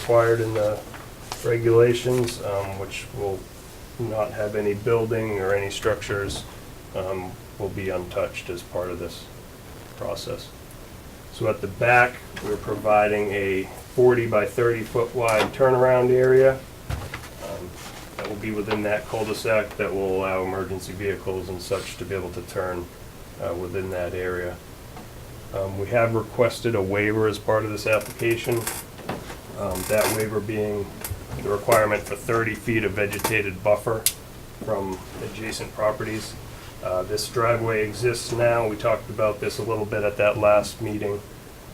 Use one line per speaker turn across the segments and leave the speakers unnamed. required in the regulations, um, which will not have any building or any structures, um, will be untouched as part of this process. So at the back, we're providing a 40 by 30 foot wide turnaround area um, that will be within that cul-de-sac that will allow emergency vehicles and such to be able to turn uh, within that area. Um, We have requested a waiver as part of this application. um, That waiver being the requirement for 30 feet of vegetated buffer from adjacent properties. Uh, This driveway exists now. We talked about this a little bit at that last meeting.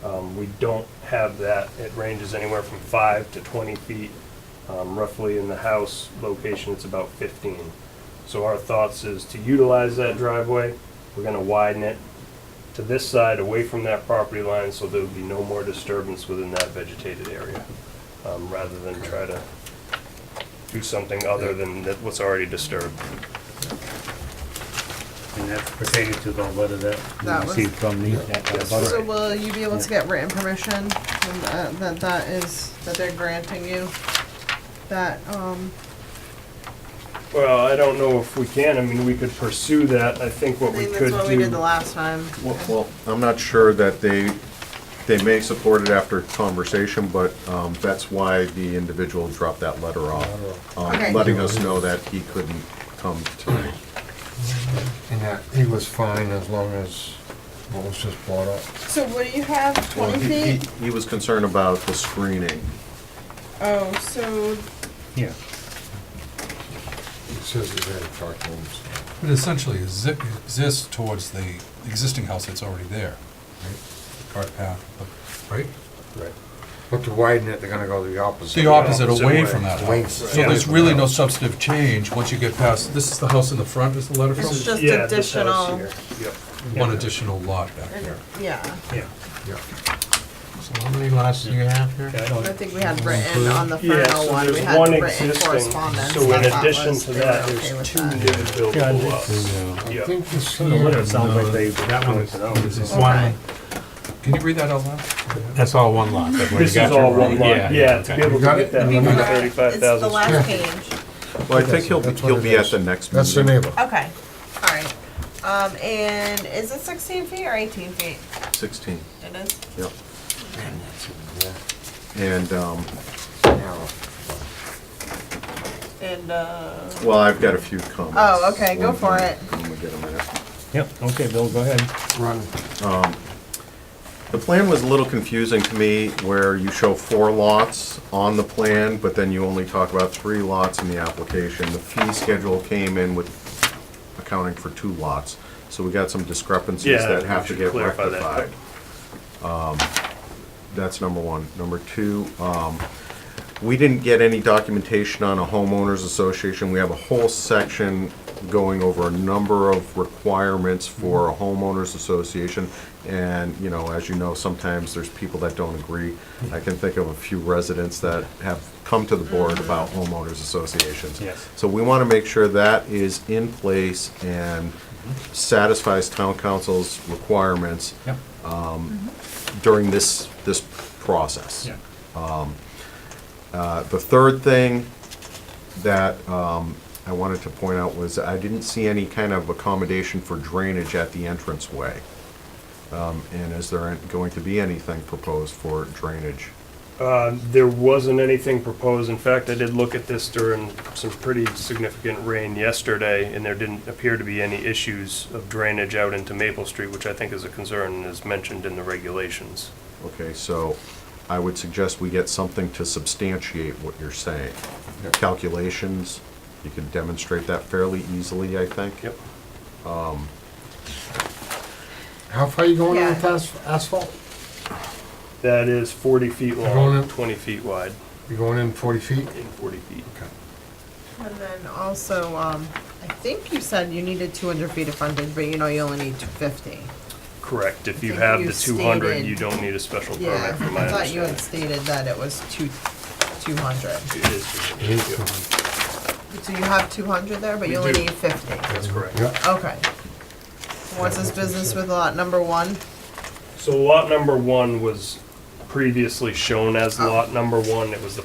Um, We don't have that. It ranges anywhere from 5 to 20 feet. Um, Roughly in the house location, it's about 15. So our thoughts is to utilize that driveway. We're going to widen it to this side, away from that property line, so there would be no more disturbance within that vegetated area, um, rather than try to do something other than that what's already disturbed.
And that's pertaining to the letter that
That
we
was-
received from the, that- that
Yes.
So
butter.
will you be able to get written permission and that, that that is, that they're granting you that, um,
Well, I don't know if we can, I mean, we could pursue that, I think
I
what we
think
could
that's what we did the
do.
last time.
Well, I'm not sure that they, they may support it after conversation, but um, that's why the individual dropped that letter off, um,
Okay.
letting us know that he couldn't come tonight.
And that he was fine as long as what was just brought up.
So what do you have,
Well,
twenty
he- he-
feet?
He was concerned about the screening.
Oh, so
yeah.
It says it's in the documents.
It essentially exi- exists towards the existing house that's already there. The Cart path, right?
Right.
But to widen it, they're gonna go the opposite.
The opposite away
way.
from that
Away.
house. So there's really no substantive change once you get past, this is the house in the front, is the letter
This is
from?
just
Yeah, this house
additional-
here. Yep.
One additional lot back
And-
there.
Yeah,
Yeah.
Yeah.
So how many lots do you have here?
Yeah, I
I
don't-
think we had written on the
Yeah,
final
so
one, we
there's
had
one
written
existing.
correspondence.
So in
that that
addition
was-
to
they
that,
were okay
there's
with
two
that.
new buildable lots.
I
Yep.
think this
The letter
here,
sounds like they, that one is,
Okay.
one,
Can you read that out loud?
that's all one lot. that we
This
got
is all
here,
one
right?
lot, yeah, to
okay.
be able to
got
get
it?
that
We
hundred
Alright,
thirty-five thousand.
It's the last page.
Well, I think he'll, be-
That's what
he'll
it
be at
is.
the next
that's the
meeting.
neighbor.
Okay, all right. Um, and is it sixteen feet or eighteen feet?
Sixteen,
It is?
yep. And, um,
Now,
And, uh,
well, I've got a few comments.
Oh, okay, go
One
for
minute.
it.
I'm gonna get 'em in.
Yep, okay, Bill, go ahead.
Run.
The plan was a little confusing to me, where you show four lots on the plan, but then you only talk about three lots in the application. The fee schedule came in with accounting for two lots, so we got some discrepancies
Yeah,
that
we
have to
should
get
clarify that.
rectified. Um, That's number one. Number two, um, we didn't get any documentation on a homeowners association. We have a whole section going over a number of requirements for a homeowners association. And, you know, as you know, sometimes there's people that don't agree. I can think of a few residents that have come to the board about homeowners associations.
Yes.
So we want to make sure that is in place and satisfies town council's requirements
Yep,
during this, this process. Um,
yeah.
Uh, The third thing that um, I wanted to point out was I didn't see any kind of accommodation for drainage at the entranceway. Um, And is there going to be anything proposed for drainage?
Uh, There wasn't anything proposed. In fact, I did look at this during some pretty significant rain yesterday, and there didn't appear to be any issues of drainage out into Maple Street, which I think is a concern and is mentioned in the regulations.
Okay, so I would suggest we get something to substantiate what you're saying.
Yeah.
Calculations, you can demonstrate that fairly easily, I think.
Yep.
How far you going on
Yeah.
with asp- asphalt?
That is 40 feet
Going
long,
in.
20 feet wide,
You going in forty feet?
and 40 feet.
And then also, um, I think you said you needed two hundred feet of frontage, but you know you only need fifty.
Correct. If you
think
have
you
the 200,
stated-
you don't need a special
Yeah,
permit, from my
I thought you had
understanding.
stated that it was two, two hundred.
It is-
So you have two hundred there, but
We
you only
do.
need fifty.
That's correct.
Yeah.
Okay. What's this business with lot number one? Oh.
So lot number one was previously shown as lot number one. It was the